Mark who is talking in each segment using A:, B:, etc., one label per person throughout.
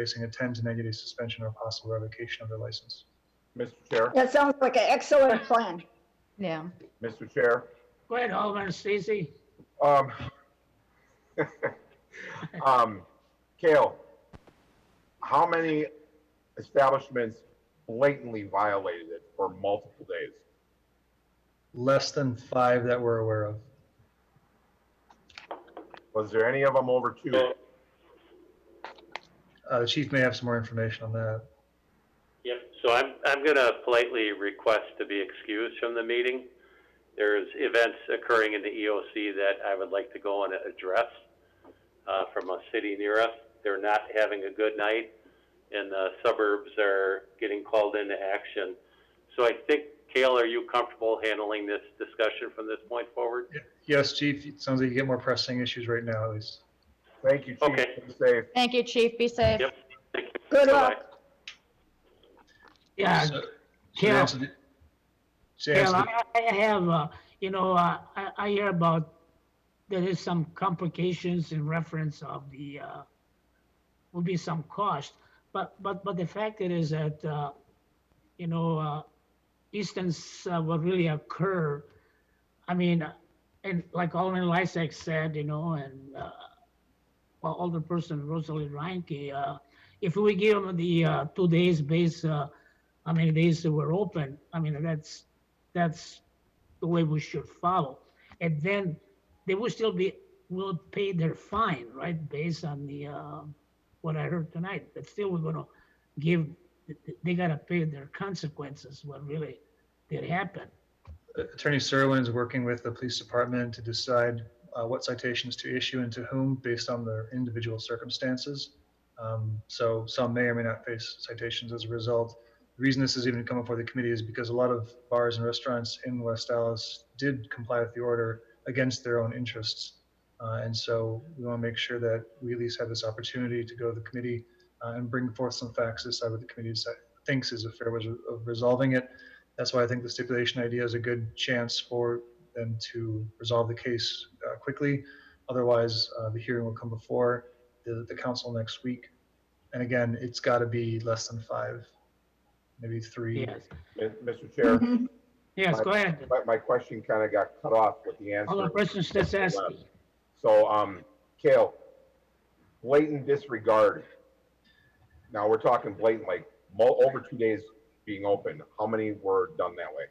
A: facing a 10 to negative suspension or possible revocation of their license.
B: Mr. Chair,
C: That sounds like an excellent plan.
D: Yeah,
B: Mr. Chair.
E: Go ahead, Alderman Stacey.
B: Um, um, Kale, how many establishments blatantly violated it for multiple days?
A: Less than five that we're aware of.
B: Was there any of them over two?
A: Uh, The chief may have some more information on that.
F: Yep, so I'm, I'm gonna politely request to be excused from the meeting. There's events occurring in the EOC that I would like to go and address, uh, from a city near us. They're not having a good night, and the suburbs are getting called into action. So I think, Kale, are you comfortable handling this discussion from this point forward?
A: Yes, chief, it sounds like you get more pressing issues right now, at least.
B: Thank you, Chief.
F: Okay.
B: Be safe.
D: thank you, chief, be safe.
F: Yep. Thank you.
C: Good
F: Bye-bye.
C: luck.
E: Yeah,
A: So- so to
E: Kale,
A: answer the- to answer
E: Kale,
A: the-
E: Uh, I, I have, uh, you know, uh, I, I hear about, there is some complications in reference of the, uh, will be some cost, but, but, but the fact it is that, uh, you know, uh, instance uh, will really occur. I mean, uh, and like Alderman Lysak said, you know, and, uh, well, Alderperson Rosalie Reinke, uh, if we give them the, uh, two days base, uh, how many days that were open, I mean, that's, that's the way we should follow. And then they will still be, will pay their fine, right, based on the, uh, what I heard tonight, but still we're gonna give, they gotta pay their consequences, what really did happen.
A: Attorney Serwin is working with the police department to decide uh, what citations to issue and to whom based on their individual circumstances. Um, So some may or may not face citations as a result. The reason this is even coming before the committee is because a lot of bars and restaurants in West Dallas did comply with the order against their own interests. Uh, And so we want to make sure that we at least have this opportunity to go to the committee uh, and bring forth some facts, decide what the committee deci- thinks is a fair way of resolving it. That's why I think the stipulation idea is a good chance for them to resolve the case uh, quickly. Otherwise, uh, the hearing will come before the, the council next week. And again, it's got to be less than five, maybe three.
E: Yes,
B: Mi- Mr. Chair,
E: yes, go ahead.
B: my, my question kind of got cut off with the answer.
E: Alderperson Stansky.
B: So, um, Kale, blatant disregard. Now, we're talking blatant, like, mo- over two days being open. How many were done that way?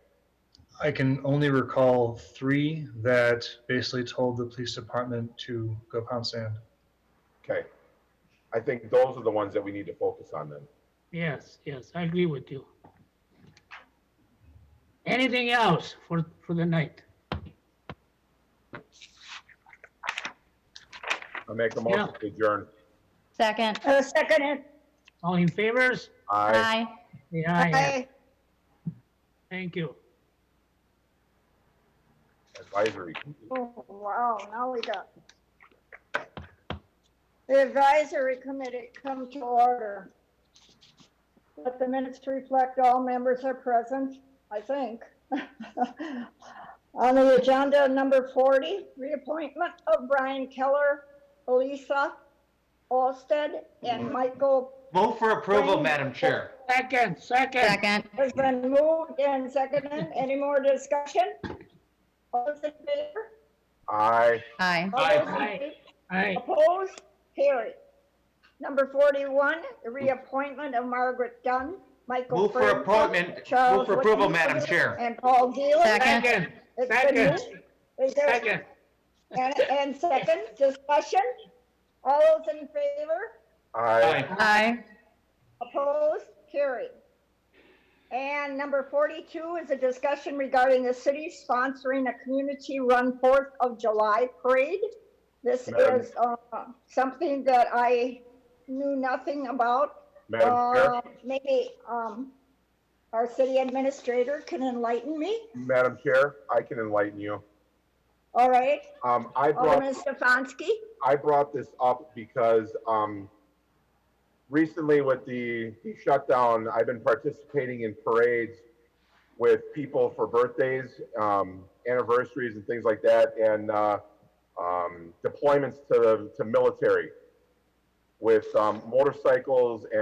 A: I can only recall three that basically told the police department to go pound sand.
B: Okay. I think those are the ones that we need to focus on then.
E: Yes, yes, I agree with you. Anything else for, for the night?
B: I make a motion to adjourn.
D: Second,
C: Uh, second it.
E: All in favors?
B: Aye.
D: aye.
E: Say aye.
C: Aye.
E: Thank you.
B: Advisory.
C: Oh, Wow, now we got. The advisory committee come to order. Let the minutes reflect all members are present, I think. On the agenda, number 40, reappointment of Brian Keller, Elisa Olsted, and Michael
G: Vote for approval,
C: Frank-
G: Madam Chair.
E: Second, second.
D: Second,
C: has been moved and seconded. Any more discussion? All those in favor?
B: Aye.
D: aye.
C: All those in
E: Aye.
C: favor?
E: Aye.
C: Opposed? Carried. Number 41, the reappointment of Margaret Dunn, Michael
G: Move for
C: Ferguson,
G: appointment-
C: Charles
G: move for approval,
C: Whittington,
G: Madam Chair.
C: And Paul Gillis.
D: Second.
E: Second,
C: It's been
E: second,
C: moved. Is there-
E: second.
C: And, and second, discussion? All those in favor?
B: Aye.
G: Aye.
D: Aye,
C: Opposed? Carried. And number 42 is a discussion regarding the city sponsoring a community-run Fourth of July parade. This
B: Madam-
C: is uh, something that I knew nothing about.
B: Madam Chair,
C: Uh, Maybe um, our city administrator can enlighten me.
B: Madam Chair, I can enlighten you.
C: All right,
B: Um, I brought
C: Alderman Stefanski?
B: I brought this up because um, recently with the the shutdown, I've been participating in parades with people for birthdays, um, anniversaries, and things like that, and uh, um, deployments to the to military. with um, motorcycles